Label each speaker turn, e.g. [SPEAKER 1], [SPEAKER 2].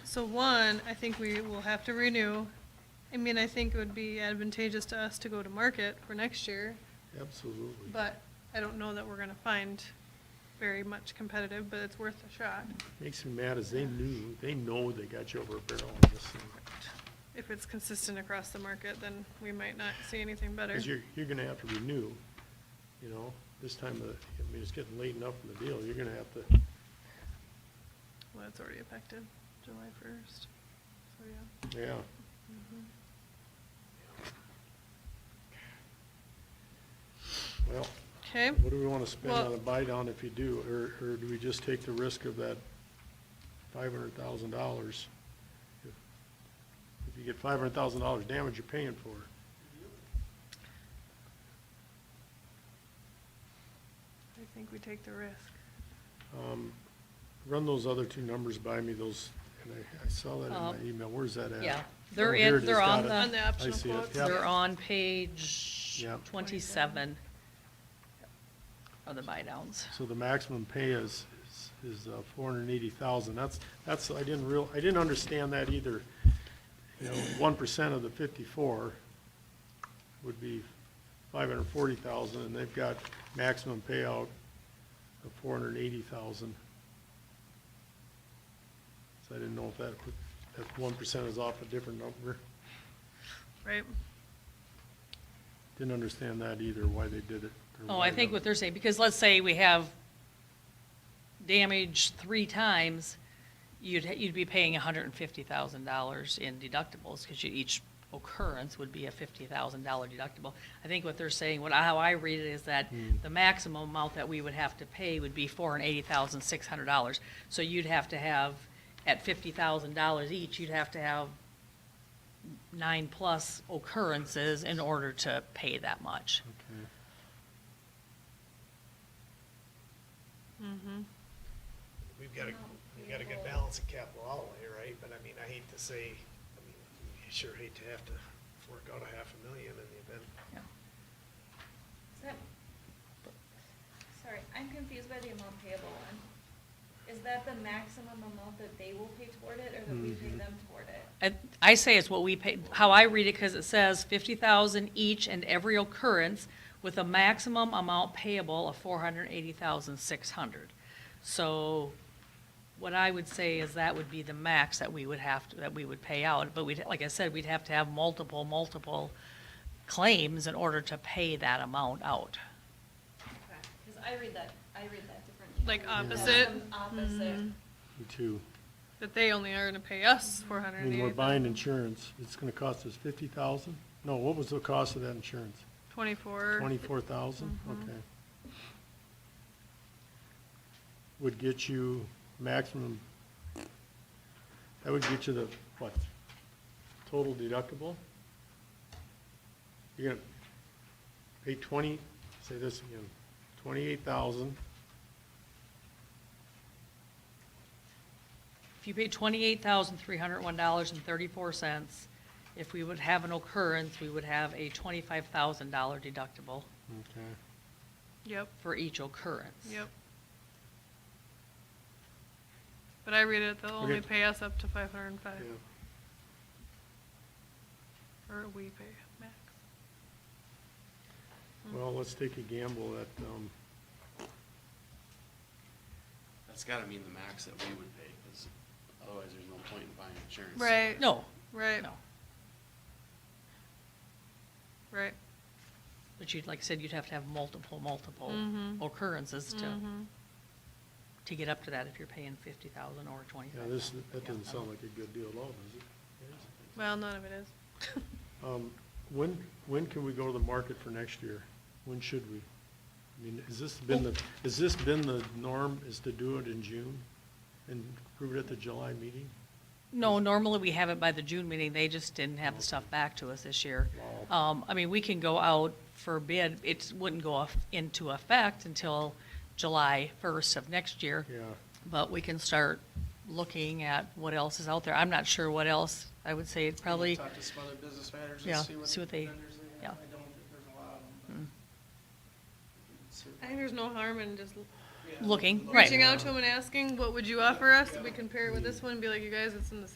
[SPEAKER 1] So one, I think we will have to renew. I mean, I think it would be advantageous to us to go to market for next year,
[SPEAKER 2] Absolutely.
[SPEAKER 1] but I don't know that we're gonna find very much competitive, but it's worth a shot
[SPEAKER 2] Makes me mad is they knew, they know they got you over a barrel on this thing.
[SPEAKER 1] if it's consistent across the market, then we might not see anything better.
[SPEAKER 2] Because you're, you're gonna have to renew, you know, this time of, I mean, it's getting late enough in the deal, you're gonna have to,
[SPEAKER 1] Well, it's already effective, July first, so yeah.
[SPEAKER 2] yeah.
[SPEAKER 1] Mm-hmm.
[SPEAKER 2] Well,
[SPEAKER 1] Okay,
[SPEAKER 2] what do we wanna spend
[SPEAKER 1] Well-
[SPEAKER 2] on a buy down if you do, or, or do we just take the risk of that five hundred thousand dollars? If you get five hundred thousand dollars damage, you're paying for it.
[SPEAKER 1] I think we take the risk.
[SPEAKER 2] Um, Run those other two numbers by me, those, and I, I saw that in my
[SPEAKER 3] Um,
[SPEAKER 2] email, where's that at?
[SPEAKER 3] yeah.
[SPEAKER 2] Oh,
[SPEAKER 3] They're
[SPEAKER 2] here
[SPEAKER 3] in-
[SPEAKER 2] it is,
[SPEAKER 3] they're
[SPEAKER 2] got
[SPEAKER 3] on
[SPEAKER 2] it.
[SPEAKER 3] the-
[SPEAKER 1] On the
[SPEAKER 2] I
[SPEAKER 1] optional
[SPEAKER 2] see it,
[SPEAKER 1] quotes,
[SPEAKER 2] yep.
[SPEAKER 3] They're on page
[SPEAKER 2] Yep.
[SPEAKER 3] twenty-seven of the buy downs.
[SPEAKER 2] So the maximum pay is, is uh, four hundred and eighty thousand, that's, that's, I didn't real, I didn't understand that either. You know, one percent of the fifty-four would be five hundred and forty thousand, and they've got maximum payout of four hundred and eighty thousand. So I didn't know if that, would- that one percent is off a different number.
[SPEAKER 1] right?
[SPEAKER 2] Didn't understand that either, why they did it. or
[SPEAKER 3] Oh,
[SPEAKER 2] why
[SPEAKER 3] I think
[SPEAKER 2] the-
[SPEAKER 3] what they're saying, because let's say we have damage three times, you'd, ha- you'd be paying hundred and fifty thousand dollars in deductibles, because you, each occurrence would be a fifty thousand dollar deductible. I think what they're saying, what, I- how I read it is that
[SPEAKER 2] Hmm.
[SPEAKER 3] the maximum amount that we would have to pay would be four hundred and eighty thousand, six hundred dollars. So you'd have to have, at fifty thousand dollars each, you'd have to have nine-plus occurrences in order to pay that much.
[SPEAKER 2] Okay.
[SPEAKER 1] Mm-hmm.
[SPEAKER 4] We've got to, we've got a good balance of capital outlay, right? But I mean, I hate to say, I mean, you sure hate to have to fork out a half a million in the event.
[SPEAKER 5] Is that- Sorry, I'm confused by the amount payable one. Is that the maximum amount that they will pay toward it, or that we pay them toward it?
[SPEAKER 3] I- I say it's what we pay, how I read it, because it says fifty thousand each and every occurrence with a maximum amount payable of four hundred and eighty thousand six hundred. So what I would say is that would be the max that we would have, to- that we would pay out. But we'd, like I said, we'd have to have multiple, multiple claims in order to pay that amount out.
[SPEAKER 5] Because I read that, I read that differently.
[SPEAKER 1] Like
[SPEAKER 5] I read that
[SPEAKER 1] opposite? Mm-hmm.
[SPEAKER 5] some Opposite.
[SPEAKER 2] Me too.
[SPEAKER 1] That they only are gonna pay us four
[SPEAKER 2] I
[SPEAKER 1] hundred and
[SPEAKER 2] mean, we're
[SPEAKER 1] eighty
[SPEAKER 2] buying
[SPEAKER 1] thousand,
[SPEAKER 2] insurance, it's gonna cost us fifty thousand? No, what was the cost of that insurance?
[SPEAKER 1] twenty-four.
[SPEAKER 2] Twenty-four thousand?
[SPEAKER 3] Mm-hmm.
[SPEAKER 1] Mhm.
[SPEAKER 2] Okay. Would get you maximum, that would get you the, what, total deductible? You're gonna pay twenty, say this again, twenty-eight thousand,
[SPEAKER 3] If you paid twenty-eight thousand, three hundred one dollars and thirty-four cents, if we would have an occurrence, we would have a twenty-five thousand dollar deductible
[SPEAKER 2] okay.
[SPEAKER 1] Yep,
[SPEAKER 3] for each occurrence.
[SPEAKER 1] yep. But I read it, they'll only
[SPEAKER 2] Okay.
[SPEAKER 1] pay us up to five hundred and five,
[SPEAKER 2] Yeah.
[SPEAKER 1] or we pay max.
[SPEAKER 2] Well, let's take a gamble at, um,
[SPEAKER 6] That's gotta mean the max that we would pay, because otherwise there's no point in buying insurance.
[SPEAKER 1] Right.
[SPEAKER 3] No,
[SPEAKER 1] Right,
[SPEAKER 3] no.
[SPEAKER 1] right.
[SPEAKER 3] But you'd, like I said, you'd have to have multiple, multiple
[SPEAKER 1] Mhm.
[SPEAKER 3] occurrences to,
[SPEAKER 1] Mhm.
[SPEAKER 3] to get up to that if you're paying fifty thousand or twenty-five
[SPEAKER 2] yeah,
[SPEAKER 3] thousand.
[SPEAKER 2] this, that doesn't sound like a good deal at all, does it?
[SPEAKER 1] Well, none of it is.
[SPEAKER 2] Um, When, when can we go to the market for next year? When should we? I mean, has this been the, has this been the norm, is to do it in June and prove it at the July meeting?
[SPEAKER 3] No, normally we have it by the June meeting, they just didn't have the stuff back to us this year.
[SPEAKER 2] Wow.
[SPEAKER 3] Um, I mean, we can go out for bid, it wouldn't go off into effect until July first of next year.
[SPEAKER 2] Yeah,
[SPEAKER 3] But we can start looking at what else is out there. I'm not sure what else. I would say it probably,
[SPEAKER 4] Talk to some other business managers
[SPEAKER 3] Yeah,
[SPEAKER 4] and see what.
[SPEAKER 3] see what they-
[SPEAKER 4] vendors have.
[SPEAKER 3] yeah.
[SPEAKER 4] I don't think there's a lot of them.
[SPEAKER 1] I think there's no harm in just
[SPEAKER 4] but- Yeah.
[SPEAKER 3] Mm. looking,
[SPEAKER 1] reaching
[SPEAKER 3] right.
[SPEAKER 1] out to them and asking, what would you offer us? We compare it with this one and be like, you guys, it's in the